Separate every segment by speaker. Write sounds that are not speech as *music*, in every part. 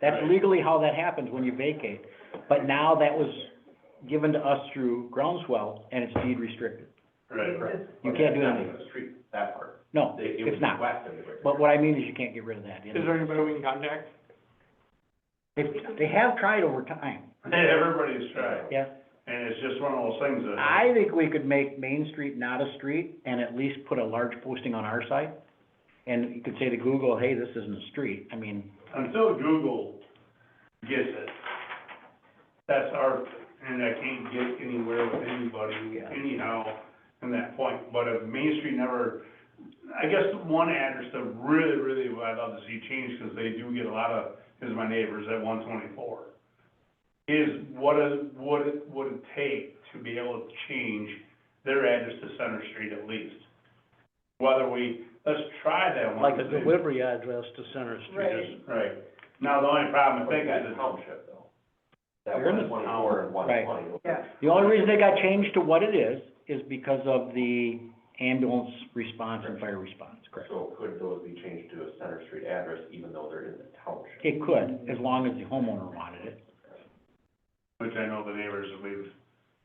Speaker 1: That's
Speaker 2: Right.
Speaker 1: legally how that happens when you vacate. But now that was given to us through groundswell and it's deed restricted.
Speaker 2: Right,
Speaker 1: You can't do anything.
Speaker 3: Street, that part.
Speaker 1: No,
Speaker 3: They- it was
Speaker 1: it's not.
Speaker 3: west of the river.
Speaker 1: But what I mean is you can't get rid of that.
Speaker 4: Is there anybody we can contact?
Speaker 1: They, they have tried over time.
Speaker 2: everybody's tried,
Speaker 1: Yeah.
Speaker 2: and it's just one of those things that.
Speaker 1: I think we could make Main Street not a street and at least put a large posting on our site. And you could say to Google, hey, this isn't a street. I mean,
Speaker 2: Until Google gets it, that's our, and I can't get anywhere with anybody
Speaker 1: Yeah.
Speaker 2: anyhow in that point, but if Main Street never, I guess one address that really, really what I'd love to see changed, because they do get a lot of, is my neighbors at one twenty-four, is what is, what it would it take to be able to change their address to Center Street at least? Whether we, let's try that one.
Speaker 5: like a
Speaker 2: see.
Speaker 5: delivery address to Center Street.
Speaker 2: Right. Now, the only problem I think is
Speaker 3: That's
Speaker 2: it's
Speaker 3: township though. That
Speaker 1: You're in
Speaker 3: one, one hour and one
Speaker 1: Right.
Speaker 3: twenty.
Speaker 1: the only reason they got changed to what it is, is because of the ambulance response and fire response, correct?
Speaker 3: So could those be changed to a Center Street address even though they're in the township?
Speaker 1: It could, as long as the homeowner wanted it.
Speaker 2: which I know the neighbors that we've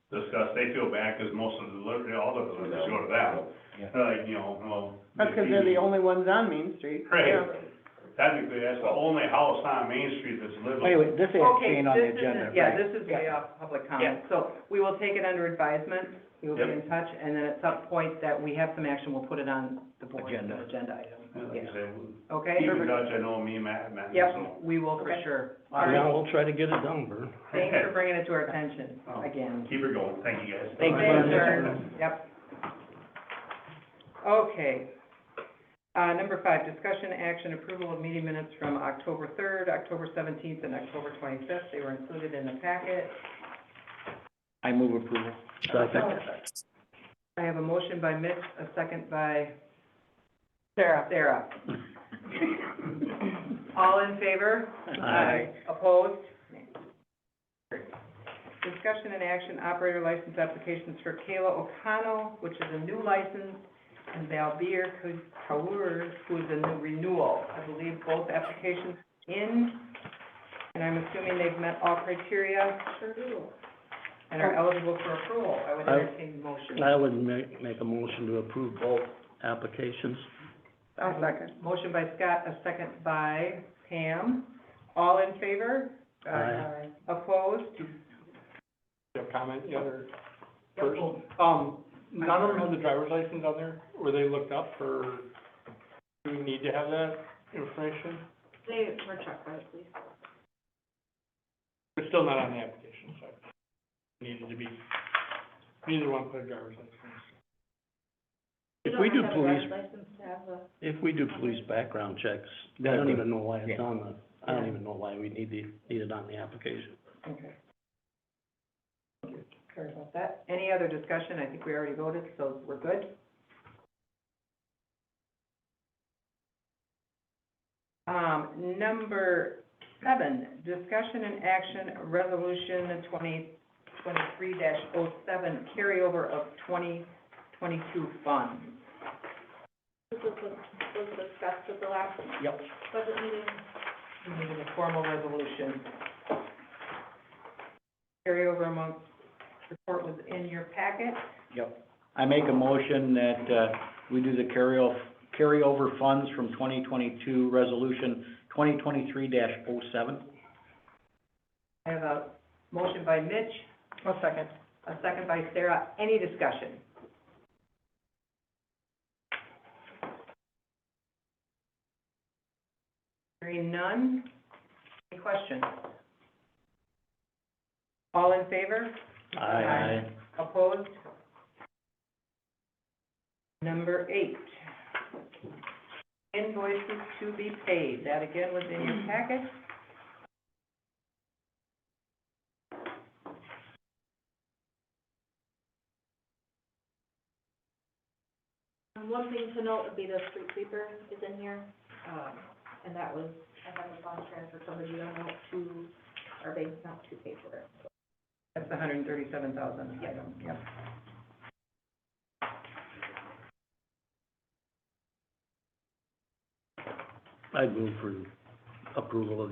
Speaker 2: discussed, they feel bad because most of the delivery, all the deliveries go to them. They're like, you know, well.
Speaker 4: That's because they're the only ones on Main Street.
Speaker 2: Right,
Speaker 4: Yeah.
Speaker 2: technically, that's the only house on Main Street that's livable.
Speaker 1: Anyway, this is
Speaker 6: Okay,
Speaker 1: Shane on the
Speaker 6: this isn't-
Speaker 1: agenda,
Speaker 6: Yeah,
Speaker 1: right?
Speaker 6: this is way off public comment, so we will take it under advisement, we will be in touch, and then at some point that we have some action, we'll put it on the board, as an
Speaker 1: Agenda.
Speaker 6: agenda
Speaker 2: Yeah,
Speaker 6: item,
Speaker 2: Like I
Speaker 6: yeah,
Speaker 2: said,
Speaker 6: okay?
Speaker 2: keep in touch, I know me and Matt, Matt, so.
Speaker 6: Yep, we will for
Speaker 4: Okay.
Speaker 6: sure. All
Speaker 5: Yeah,
Speaker 6: right,
Speaker 5: we'll try to get it done, Vern.
Speaker 6: thanks for bringing it to our attention
Speaker 4: Oh.
Speaker 6: again.
Speaker 2: Keep it going, thank you guys.
Speaker 1: Thank you.
Speaker 6: Thanks, Vern. Yep. Okay. Uh, number five, discussion action approval of meeting minutes from October third, October seventeenth, and October twenty-fifth. They were included in the packet.
Speaker 1: I move approval.
Speaker 5: Second.
Speaker 6: I have a motion by Mitch, a second by
Speaker 4: Sarah.
Speaker 1: *laughs*
Speaker 6: Sarah. All in favor?
Speaker 1: Aye.
Speaker 6: Opposed? Discussion and action, operator license applications for Kayla O'Connell, which is a new license, and Valbir Kaur, who is a new renewal. I believe both applications in, and I'm assuming they've met all criteria. Sure do. And are eligible for approval. I would
Speaker 5: I-
Speaker 6: entertain the motion.
Speaker 5: I would make, make a motion to approve both applications.
Speaker 4: I'll second.
Speaker 6: Motion by Scott, a second by Pam. All in favor?
Speaker 5: Aye.
Speaker 6: Opposed?
Speaker 4: Do you have comment, the other person? Um, none of them had the driver's license on there, were they looked up, or do we need to have that information?
Speaker 7: They were checked by the police.
Speaker 4: It's still not on the application, so needed to be, neither one put a driver's license.
Speaker 5: If we do police,
Speaker 7: You don't have to have a driver's license to have a,
Speaker 5: if we do police background checks, I don't even know why it's on the, I don't
Speaker 6: Yeah.
Speaker 5: even know why we need the, need it on the application.
Speaker 6: Okay. Sorry about that. Any other discussion? I think we already voted, so we're good. Um, number seven, discussion and action, resolution twenty twenty-three 7 carryover of twenty twenty-two funds.
Speaker 7: this was, was discussed at the last
Speaker 1: Yep.
Speaker 7: budget meeting.
Speaker 6: We needed a formal resolution. Carryover among, report was in your packet.
Speaker 1: Yep. I make a motion that, uh, we do the carryo, carryover funds from twenty twenty-two resolution twenty twenty-three oh 7
Speaker 6: I have a motion by Mitch. A second. A second by Sarah. Any discussion? Hearing none. Any questions? All in favor? Aye. Opposed? Number eight, invoices to be paid. That again was in your packet.
Speaker 7: Um, one thing to note would be the street sweeper is in here, um, and that was, I had a bond transfer from the GO note to our bank account to pay for it.
Speaker 6: That's the hundred and thirty-seven thousand item, yep.
Speaker 5: I'd move for approval of